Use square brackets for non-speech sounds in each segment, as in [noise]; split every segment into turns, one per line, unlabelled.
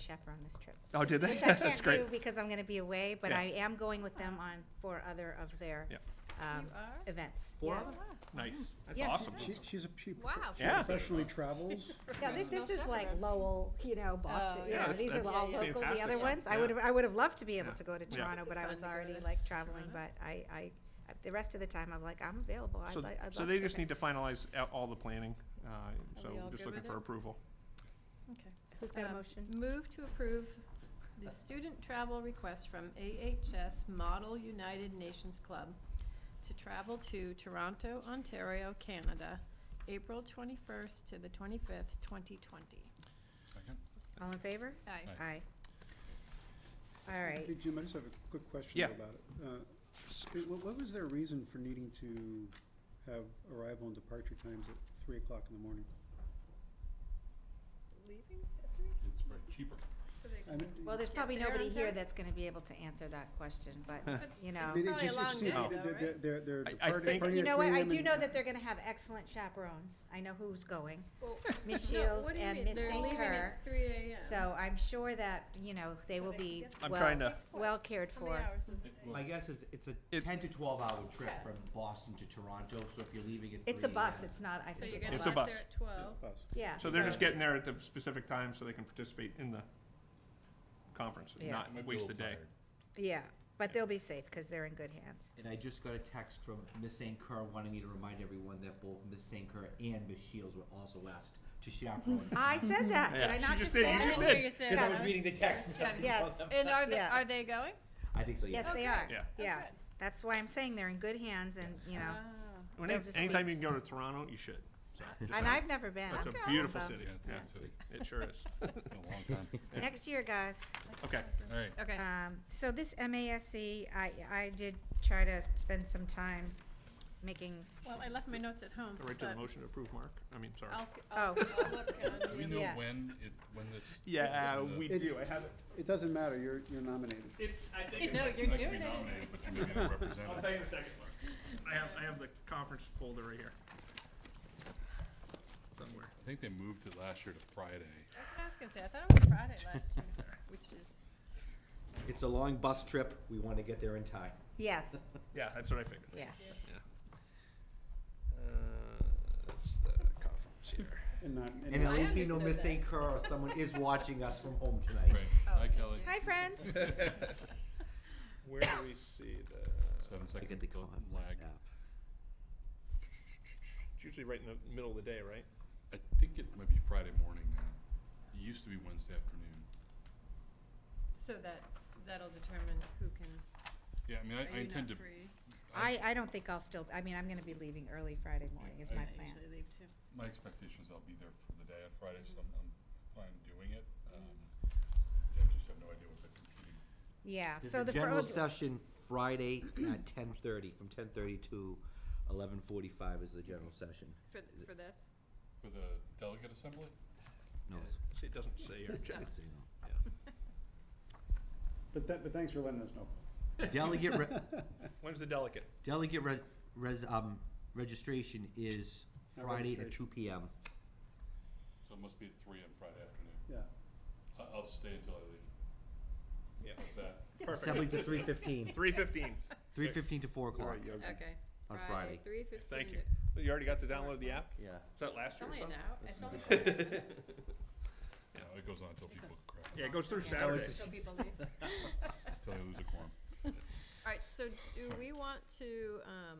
chaperone this trip.
Oh, did they?
Which
[laughs]
I
That's
can't
great.
do because I'm gonna be away, but
Yeah.
I am going with them on four other of their,
Yeah.
um,
are?
events.
Four
Yeah.
of them?
Nice. That's
Yeah.
awesome.
She, she's a, she pro-
Wow.
she
Yeah.
professionally travels.
No, thi- this, is like Lowell, you know, Boston, you
Oh, yeah,
know,
that's-
these are
that's
all local, the other
fantastic,
ones, I
yeah.
would have, I would have loved to be able
Yeah.
to go to
Yeah.
Toronto, but I
Fun
was
to go
already
to
like traveling, but
Toronto.
I, I, I- the rest of the time, I'm like, I'm available, I'd
So,
like, I'd love to.
so they just need to finalize out all the planning, uh, so
we all
just
good
looking
with
for
it?
approval.
Who's got a
Um,
motion?
Move to approve the student travel request from AHS Model United Nations Club to travel to Toronto, Ontario, Canada, April twenty-first to the twenty-fifth, twenty twenty.
Second?
All in favor?
Aye.
Aye. [laughs] All right,
Hey, Jim, I just have a quick question
Yeah.
about it. Uh, it- What, what was their reason for needing to have arrival and departure times at three o'clock in the morning?
Leaving at three?
It's very cheaper.
So they
I mean,
well, there's
Yeah,
probably
they're
nobody
on
here
their-
that's gonna be able to answer that question, but,
[laughs]
But
you
it's
know.
they- they
probably a
just- it
long
just seemed
day
like
though,
they're-
right?
they're- they're- they're
I- I
departing-
think-
departing
You
at
know what,
3
I
a.m.
do
and-
know that they're gonna have excellent chaperones, I know who's going,
Well, [laughs]
Miss
oh. no,
Shields
what do you
and
mean?
Miss
They're
St.
leaving
Kerr,
at Three AM.
so I'm sure that, you know, they will be
I'm
well,
trying to,
well cared for.
How many hours is it?
My guess is it's a
It-
ten to twelve hour trip
Okay.
from Boston to Toronto, so if you're leaving at
It's a
3
bus,
a.m.
it's not, I
So
think
you're
it's
gonna
a
It's
bus.
a
bus
bus.
there at twelve?
Bus.
Yeah.
so they're just
so-
getting there at the specific time so they can participate in the conference and
Yeah.
not waste a day.
Yeah, but they'll be safe, cause they're in good hands.
And I just got a text from Miss St. Kerr wanting me to remind everyone that both Miss St. Kerr and Miss Shields were also asked to chaperone.
[laughs] I
[laughs]
said that, did
Yeah.
I
She
not
just
just
did,
say
you
that?
just
I hear
did.
you say
Because I
that.
was reading the text message. [laughs]
Yes.
And are they,
Yeah.
are they going?
I think so, yes.
Yes, they
Okay.
are,
Yeah.
yeah,
Okay.
that's why I'm saying they're in good hands and, you know,
Ah.
When
They'll
any-
just
anytime
wait.
you can go to Toronto, you should. So, just
and
saying.
I've never been.
It's
I'm
a
so
beautiful
bummed.
city.
Yeah, it's a
Yeah,
good city.
it
[laughs]
sure is.
It's been a long time.
Next year, guys.
Okay.
All right.
Okay.
Um, so this MASC, I, I did try to spend some time making,
Well, I left my notes at home,
Go right to the
but
motion to approve, Mark. I mean, sorry.
I'll,
Oh.
I'll, I'll look [laughs]
Do
on
we
the-
know
Yeah.
when it, when this?
Yeah, uh,
when the-
we
It's-
do. I have it.
It doesn't matter, you're, you're nominated.
It's, I
[laughs]
You
think,
know,
I
you're
think we
doing
nominate,
it.
but then we get a
I'll
representative.
tell you in a second, Mark. I have, I have the conference folder right here. Somewhere.
I think they moved it last year to Friday.
That's what I was gonna say, I thought it was Friday last [laughs] year, which is,
It's a long bus trip, we wanna get there in time.
yes,
Yeah, that's what I figured.
yeah.
Uh, that's the conference here.
And not,
And
and
at
I
least we know
understood
Miss
that.
St. Kerr or someone
[laughs]
is watching us from home tonight.
Right, hi
thank
Kelly.
you.
Hi,
[laughs]
friends.
Where do we see the?
Seven
I
second
get the
del-
conference
lag.
app.
It's usually right in the middle of the day, right?
I think it might be Friday morning now. It used to be Wednesday afternoon.
so that, that'll determine who can,
Yeah, I mean, I- I
are you
intend
not
to,
free?
I, I don't think I'll still, I mean, I'm gonna be leaving early Friday morning is my
I-
plan.
usually leave too.
my expectation is I'll be there for the day on Friday, so I'm, I'm fine doing it. Um, yeah, I just have no idea what the competing
Yeah,
There's
so
a
the. fir-
general
oh,
session Friday at [clears throat] ten thirty, from ten thirty to eleven forty-five is the general session.
For, th- for this?
For the delegate assembly?
No, it's-
See, it doesn't say here.
[laughs]
Check.
it's, you know.
but that, but thanks for letting us know.
Delegate, re-
When's the delegate?
delegate res, res, um, registration is
Not
Friday at
registration.
two P M.
So it must be at three on Friday afternoon.
Yeah.
I- I'll stay until I leave.
Yeah.
How's that?
Assembly's
Perfect.
at
[laughs]
three fifteen.
Three
[laughs]
fifteen.
Three fifteen to four o'clock.
Okay.
On Friday.
Three fifteen.
Thank you. You already got to download the app?
Yeah.
Is that last
It's
year or
only an
something?
hour, it's
[laughs]
only,
Yeah, it goes on until people crap,
[laughs] Yeah, it goes through
Yeah.
Saturday.
so people leave. [laughs]
until I lose a quorum.
All right, so do we want to, um,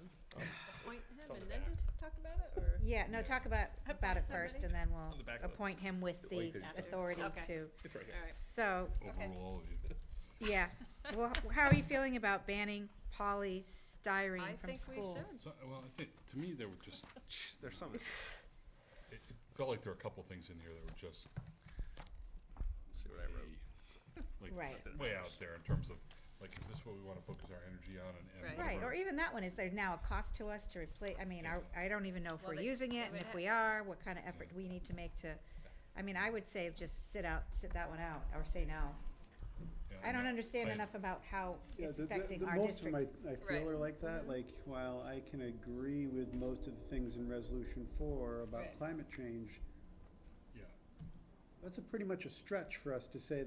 appoint
Oh. It's
him
on the
and then
back.
just talk about it, or?
Yeah, no, talk about, about it
Appoint
first
somebody?
and then
On the
we'll
back of it.
appoint him with
Or you
the
could
just-
authority
Okay.
to.
It's right here.
All right,
So,
Okay.
Overrule all of you.
yeah, well, how are you feeling about banning
I
polystyrene from
think we
schools?
should.
So, well, I think, to me, there were just,
There's some, see
it it felt like there were a couple things in here that were just
what I wrote.
way,
Right.
like, way out there in terms of, like, is this what we wanna focus our energy on and, and
Right.
Right,
whatever-
or even that one, is there now a cost to us to replace, I mean, are- I don't even know if
Well,
we're
they-
using
they
it, and
would
if
ha-
we are, what kind of effort we need to make to, I mean, I would say just sit out, sit that one out, or say no.
yeah,
e- I
and
don't
that-
understand
I-
enough about how
Yeah,
it's
the- the-
affecting
the
our
Most
district.
of them I- I
Right. Mm-hmm.
feel are like that, like, while I can agree with most of the things in Resolution Four about
Right.
climate change,
Yeah.
that's a pretty much a stretch for us to say